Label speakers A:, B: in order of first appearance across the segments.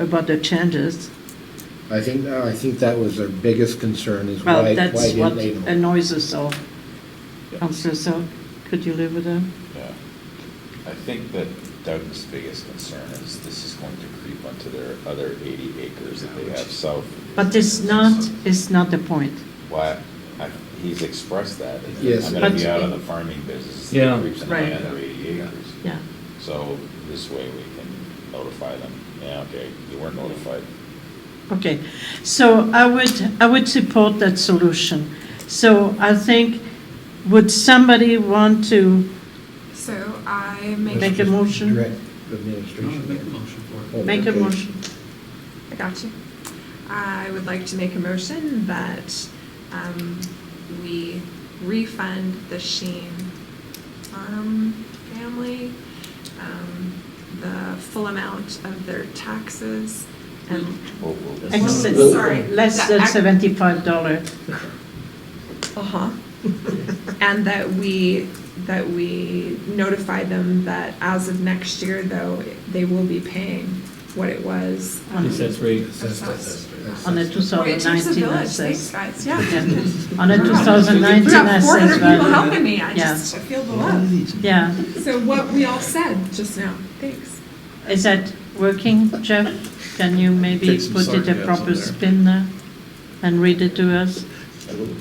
A: about the changes.
B: I think, uh, I think that was their biggest concern is
A: Well,
B: why, why
A: that's
B: didn't
A: what
B: they know?
A: annoys us all.
C: Yeah.
A: Councillor So, could you live with that?
C: Yeah. I think that Doug's biggest concern is this is going to creep onto their other 80 acres that they have south.
A: But it's not, it's not the point.
C: Why, I- he's expressed that.
B: Yes.
C: I'm going to be
A: But-
C: out of the farming business. if it
D: Yeah.
C: Creeps into
A: Right.
C: my other 80 acres.
A: Yeah.
C: So this way we can notify them. Yeah, okay, you weren't notified.
A: Okay, so I would, I would support that solution. So I think, would somebody want to,
E: So I
B: Let's
E: make.
A: Make a
B: just
A: motion.
B: Direct
F: No, make a
B: administration.
F: motion for
B: Oh,
F: it.
A: Make a
B: okay.
A: motion.
E: I got you. I would like to make a motion that um, we refund the Sheen Farm family um, the full amount of their taxes and
C: Oh, We'll- we'll-
A: Excess-
E: Well, sorry.
A: less than seventy-five dollar?
E: Uh-huh. And that we, that we notify them that as of next year, though, they will be paying what it was. um,
D: Assess rate.
B: Assessed, assessed,
A: On the
B: assessed.
A: two
E: Boy,
A: thousand
E: it takes a
A: nineteen
E: village, thanks,
A: assess.
E: guys,
A: Yeah.
E: yeah.
A: On a two thousand
E: We
A: nineteen
E: got four
A: assess
E: hundred people
A: value.
E: helping me, I
A: Yeah.
E: just I feel the love.
A: Yeah,
E: So what we all said just now, thanks.
A: is that working, Jeff? Can you maybe
F: Take some
A: put it a
F: sarcasm
A: proper
F: there.
A: spin there and read it to us?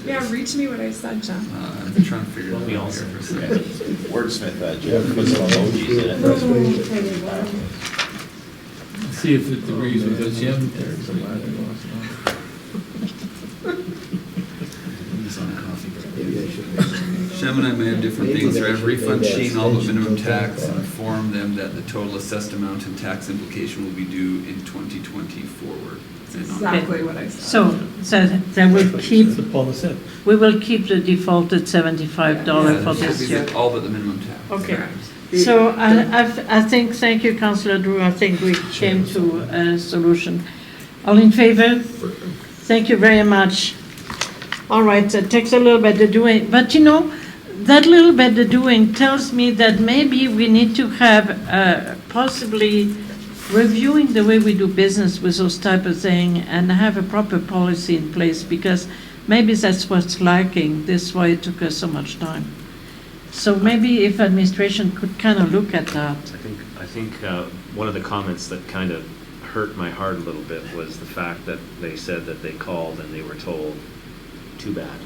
E: Yeah, reach me what I said, John.
F: Uh, I'm trying to figure it out
D: We all
F: here for a
C: Okay.
F: second.
C: Wordsmith that, Jeff, put some emojis in it.
B: That's what he-
D: See if it agrees with us, Jim.
F: It's on coffee break.
B: Maybe I should make-
G: Shem and I may have different things, or have refund Sheen all the minimum tax and inform them that the total assessed amount and tax implication will be due in 2020 forward. And on-
E: Exactly what I said.
A: So, so they will keep,
D: Paula said.
A: we will keep the defaulted seventy-five dollar
G: Yeah,
A: for
G: it should
A: this
G: be
A: year.
G: All but the minimum tax.
A: Okay.
E: Correct.
A: So I, I've- I think, thank you, Councillor Drew, I think we came to a solution. All in favor? Thank you very much. All right, it takes a little bit of doing, but you know, that little bit of doing tells me that maybe we need to have uh, possibly reviewing the way we do business with those type of thing and have a proper policy in place because maybe that's what's lacking. That's why it took us so much time. So maybe if administration could kind of look at that.
H: I think, I think uh, one of the comments that kind of hurt my heart a little bit was the fact that they said that they called and they were told, too bad.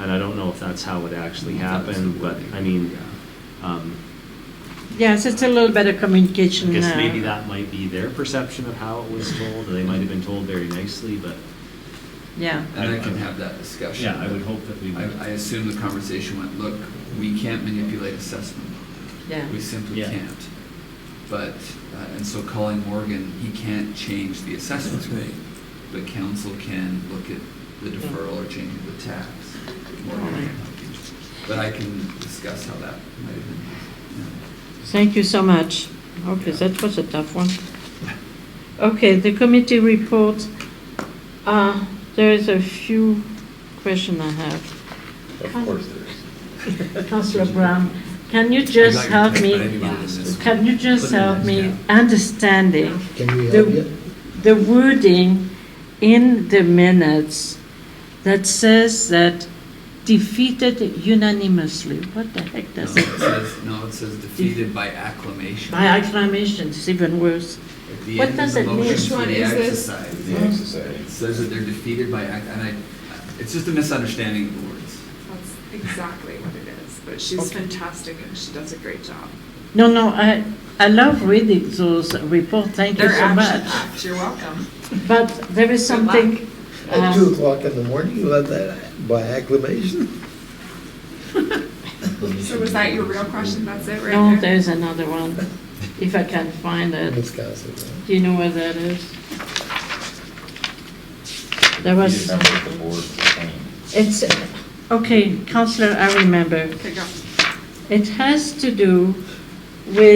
H: And I don't know if that's how it actually happened, but I mean, um,
A: Yes, it's a little better communication
H: I guess
A: now.
H: maybe that might be their perception of how it was told, or they might have been told very nicely, but
A: Yeah,
G: And I can have that discussion.
H: yeah, I would hope that we
G: I, I
H: would.
G: assume the conversation went, look, we can't manipulate assessment.
A: yeah.
G: We simply
H: Yeah.
G: can't. But, uh, and so calling Morgan, he can't change the assessment rate, but council can look at the deferral or change of the tax. Morgan can't change it. But I can discuss how that might have been. yeah.
A: Thank you so much. Okay, that was a tough one. Okay, the committee report. Uh, There is a few question I have.
C: Of course there is.
A: Councillor Brown, can you just help me, can you just help me understanding
B: Can we
A: The-
B: help you?
A: the wording in the minutes that says that defeated unanimously? What the heck
G: No,
A: does
G: it
A: that
G: says, no, it says defeated by acclamation.
A: By acclamation, it's even worse.
G: At the
A: What
G: end of
A: does
G: the
A: it mean?
G: motion
E: Which
G: for
E: one
G: the
E: is this?
G: exercise,
C: The
G: It
C: exercise.
G: says that they're defeated by, ac- and I, it's just a misunderstanding of the words.
E: That's exactly what it is, but she's fantastic and she does a great job.
A: No, no, I, I love reading those reports, thank you
E: They're
A: so
E: action
A: much.
E: packed, you're welcome.
A: But there is
E: Good luck.
A: something,
B: At
A: uh,
B: two o'clock in the morning, you have that by acclamation?
E: So was that your real question? That's it right there?
A: no, there's another one, if I can find it.
B: Wisconsin.
A: Do you know where that is? There was,
C: Remember what the board was saying.
A: it's, okay, Counselor, I remember.
E: Okay, go.
A: It has to do with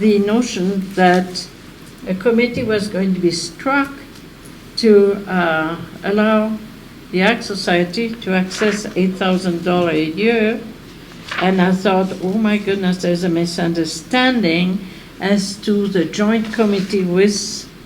A: the notion that a committee was going to be struck to uh, allow the Art Society to access $8,000 a year. And I thought, oh my goodness, there's a misunderstanding as to the joint committee with